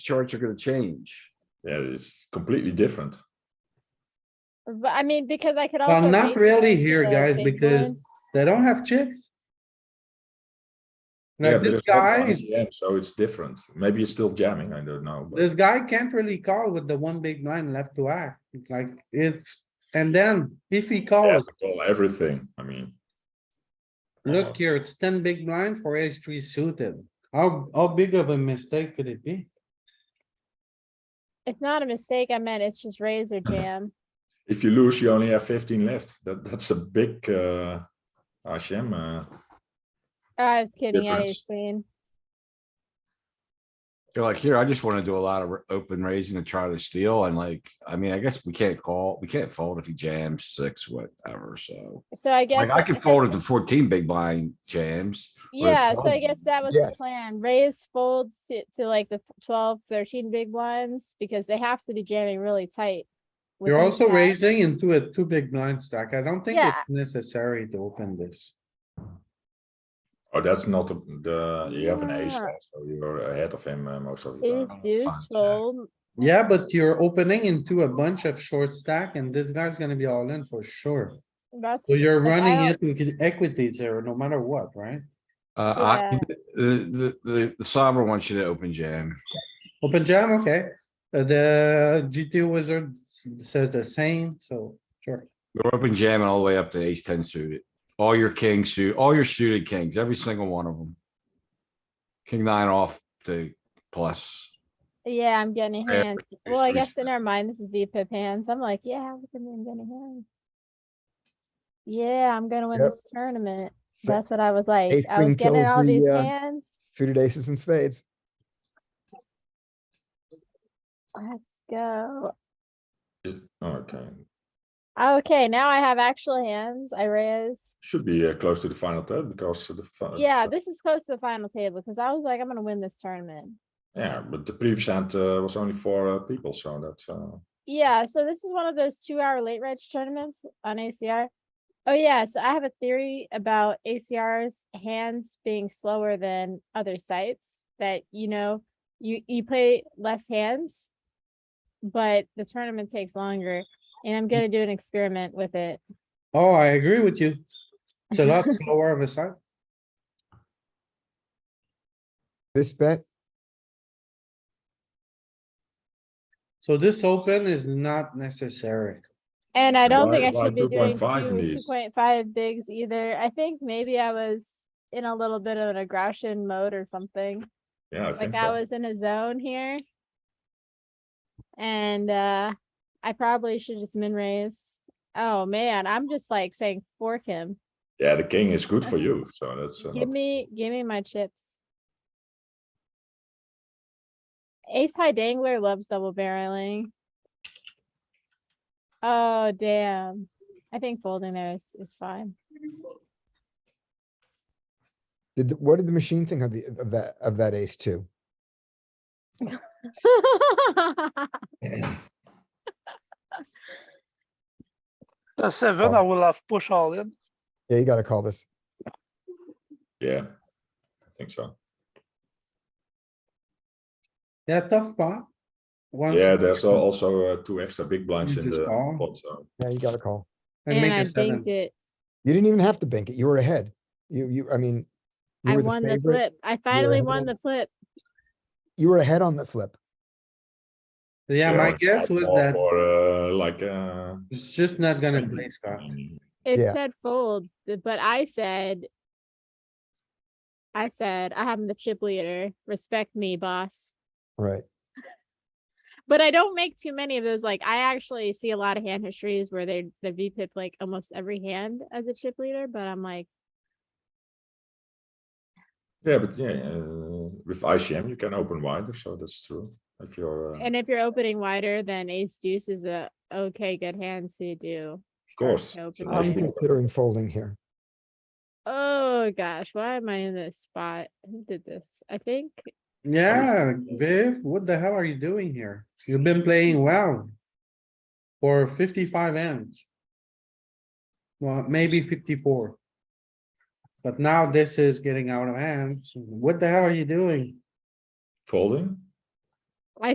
charts are gonna change. Yeah, it's completely different. But I mean, because I could also. Well, not raise really them to here, the guys, big because ones. they don't have chips. yeah, Now, but this it's not guy, ICM, so it's different. Maybe it's still jamming. I don't know. but- this guy can't really call with the one big blind left to act, like, it's, and then if he He has calls, to call everything. I mean, look here, it's ten big blind for ace three suited. How, how big of a mistake could it be? It's not a mistake. I meant it's just razor jam. if you lose, you only have 15 left. That that's a big uh, ICM. Uh, Oh, I was kidding. I Difference. queen. You're like, here, I just wanna do a lot of r- open raising to try to steal and like, I mean, I guess we can't call, we can't fold if he jams six, whatever, so. So I guess. Like, I can fold at the fourteen big blind jams. with a Yeah, so I 12. guess that was the Yes. plan. Raise folds to, to like the 12, 13 big ones because they have to be jamming really tight. with You're these also guys. raising into a two big blind stack. I don't think Yeah. it's necessary to open this. oh, that's not the, the you have an ace, Yeah. so you're ahead of him uh, most of the Ace time. deuce Five, yeah. fold. Yeah, but you're opening into a bunch of short stack and this guy's gonna be all in for sure. That's, So you're Like, I running don't- it with equities there, no matter what, right? Uh, I, the, the- the, the sovereign wants you to open jam. Open jam, okay. Uh, The GT wizard s- says the same, so sure. We're open jamming all the way up to ace ten suited. All your king suit, all your suited kings, every single one of them. King nine off to plus. yeah, I'm getting a Yeah, hand. it's Well, I three guess in our mind, this is V pip hands. I'm like, yeah, look at me, I'm getting hands. Yeah, I'm gonna win Yep. this tournament. So- That's what I was like. Ace I was queen getting kills all these the, uh, hands. suited aces and spades. Let's go. Is- Okay, Okay, now I have actual hands. I raise. should be uh, close to the final table because the fi- Yeah, Oh, this is close to the final table because I was like, I'm gonna win this tournament. yeah, but the previous hand uh, was only four uh, people, so that's uh, Yeah, so this is one of those two hour late reg tournaments on ACR. Oh yeah, so I have a theory about ACR's hands being slower than other sites that, you know, you, you play less hands, but the tournament takes longer and I'm gonna do an experiment with it. Oh, I agree with you. It's a lot slower of a side. This bet, So this open is not necessary. And I don't think Why- I why should be doing two, 2.5 in two these? point five bigs either. I think maybe I was in a little bit of an aggression mode or something. yeah. I like think I so. was in a zone here. And uh I probably should just min raise. Oh man, I'm just like saying fork him. Yeah, the king is good for you, so that's uh, Give not- me, give me my chips. Ace high dangler loves double barreling. Oh damn. I think folding there is, is fine. did, the- what did the machine think of the, of that, of that ace two? The seven, Oh. I will have push all in. Yeah, you gotta call this. yeah, I think so. Yeah, tough spot. Once Yeah, there's al- also uh, two extra big blinds in Just the call. pot, so Yeah, you gotta call. and And make I a seven. binked it. You didn't even have to bank it. You were ahead. You, you, I mean. you I were the won the favorite. flip. I finally ahead won of- the flip. You were ahead on the flip. Yeah, my it's guess like was more that for uh, like uh, it's just not gonna 20. play, Scott. It Yeah. said fold, th- but I said, I said, I am the chip leader. Respect me, boss. Right. But I don't make too many of those. Like I actually see a lot of hand histories where they the VPIP like almost every hand as a chip leader. But I'm like, Yeah, but yeah, uh, with ICM you can open wider, so that's true. If you're, uh, and if you're opening wider, then Ace Deuce is a okay good hand to do. of course, open it's a nice I'm wider. big blind. considering folding here. Oh gosh, why am I in this spot? Who did this? I think Yeah, Viv, what the hell are you doing here? You've been playing well. For fifty-five ends. Well, maybe fifty-four. But now this is getting out of hand. What the hell are you doing? folding.